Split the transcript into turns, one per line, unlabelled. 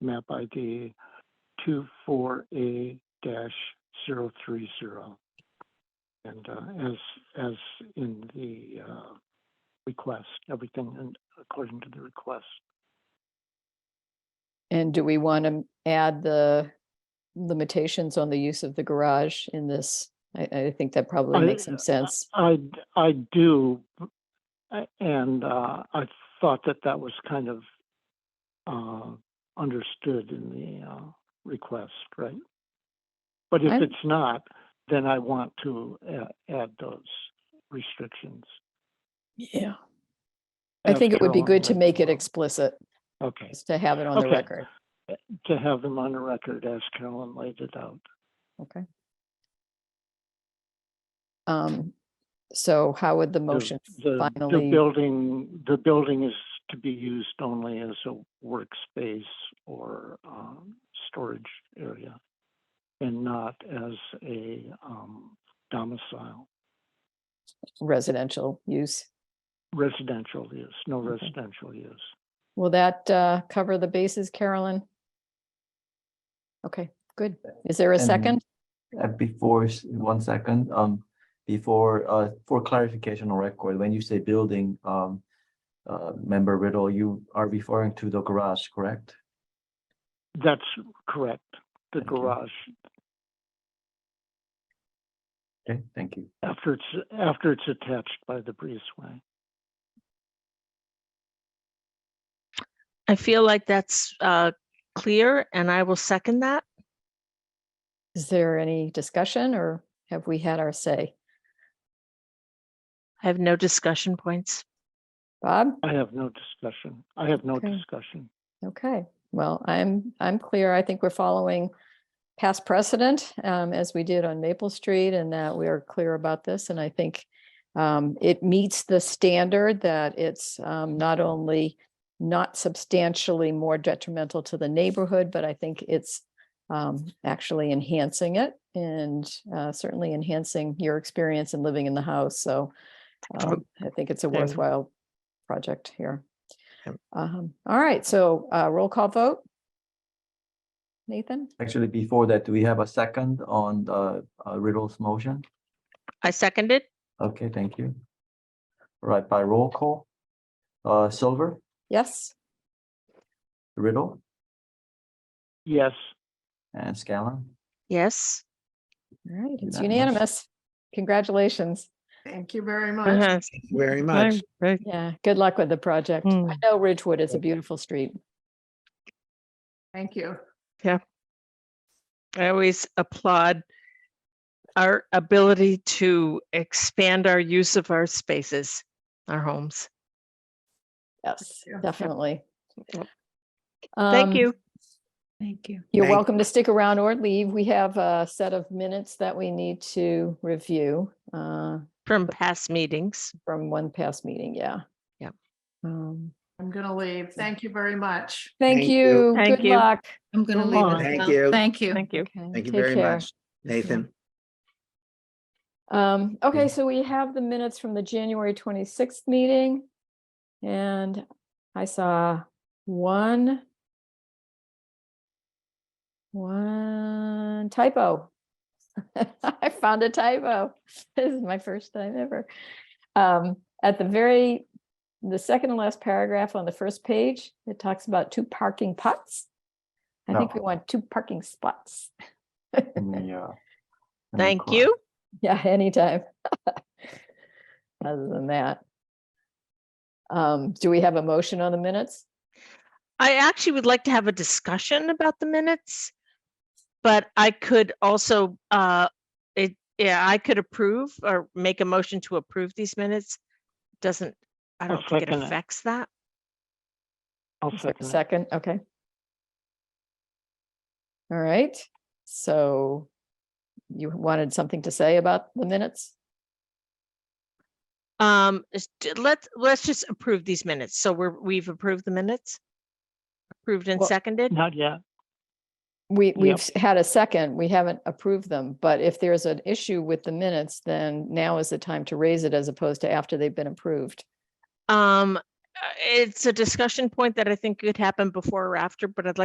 map ID 24A-030. And uh, as, as in the uh, request, everything in- according to the request.
And do we want to add the limitations on the use of the garage in this? I, I think that probably
I-
makes some sense.
I, I do, a- and uh, I thought that that was kind of uh, understood in the uh, request, right? But if
I'm-
it's not, then I want to a- add those restrictions.
Yeah. I think it would be
after all
good to
that.
make it explicit,
Okay,
just to have it on the
Okay.
record.
to have them on the record as Carolyn laid it out.
Okay. Um, so how would the
The-
motion
the- The
finally,
building, the building is to be used only as a workspace or um, storage area and not as a um, domicile,
residential use?
residential use, no
Okay.
residential use.
Will that, uh, cover the bases, Carolyn? Okay, good. Is there a
And-
second?
Uh, Before, s- one second, um, before, uh, for clarification on record, when you say building, um, uh, member Riddle, you are referring to the garage, correct?
That's correct, the
Thank you.
garage.
Okay, thank you.
After it's, after it's attached by the breezeway.
I feel like that's uh, clear, and I will second that.
Is there any discussion or have we had our say?
I have no discussion points.
Bob?
I have no discussion. I have no
Okay.
discussion.
Okay, well, I'm, I'm clear. I think we're following past precedent um, as we did on Maple Street and that we are clear about this. And I think um, it meets the standard that it's um, not only not substantially more detrimental to the neighborhood, but I think it's um, actually enhancing it and uh, certainly enhancing your experience in living in the house. So um, I think it's a
Okay.
worthwhile project here.
Yep.
Um, all right, so, uh, roll call vote. Nathan,
Actually, before that, do we have a second on the uh, Riddle's motion?
I seconded.
Okay, thank you. All Right, by roll call, uh, Silver,
yes,
Riddle,
Yes,
and Scanlon.
Yes.
all right, it's
Unanimous.
unanimous. Congratulations.
Thank you very much.
Uh-huh.
Very
Fine.
much.
Right.
Yeah, good luck with the project. I
Mm.
know Ridgewood is a beautiful street.
Thank you.
I always applaud our ability to expand our use of our spaces, our homes.
Yes,
Yeah. Yep.
definitely.
Yep. Thank
Um,
you.
Thank you.
You're
Thank-
welcome to stick around or leave. We have a set of minutes that we need to review, uh,
From past meetings.
from one past meeting, yeah.
Yep.
Um,
I'm gonna leave. Thank you very much.
thank
Thank you.
you,
Thank
good
you.
luck.
I'm gonna
Come
leave.
on.
as
Thank
well.
you.
Thank you.
Thank you.
Okay,
Thank you
take
very
care.
much, Nathan.
Um, okay,
Yeah.
so we have the minutes from the January twenty-sixth meeting. And I saw one one typo. I found a typo. This is my first time ever. Um, at the very, the second and last paragraph on the first page, it talks about two parking pots. I think we
No. Mm.
want two parking spots.
Yeah.
Thank you.
Yeah, anytime. Other than that. Um, do we have a motion on the minutes?
I actually would like to have a discussion about the minutes. But I could also, uh, it, yeah, I could approve or make a motion to approve these minutes. Doesn't, I
I'll
don't think it
second it.
affects that.
I'll
Is there
second
a
it.
Second, okay. All right, so you wanted something to say about the minutes?
Um, is- d- let's, let's just approve these minutes. So we're, we've approved the minutes? Approved and
Well,
seconded?
Not yet.
We,
Yep.
we've s- had a second, we haven't approved them, but if there's an issue with the minutes, then now is the time to raise it as opposed to after they've been approved.
Um, uh, it's a discussion point that I think could happen before or after, but I'd like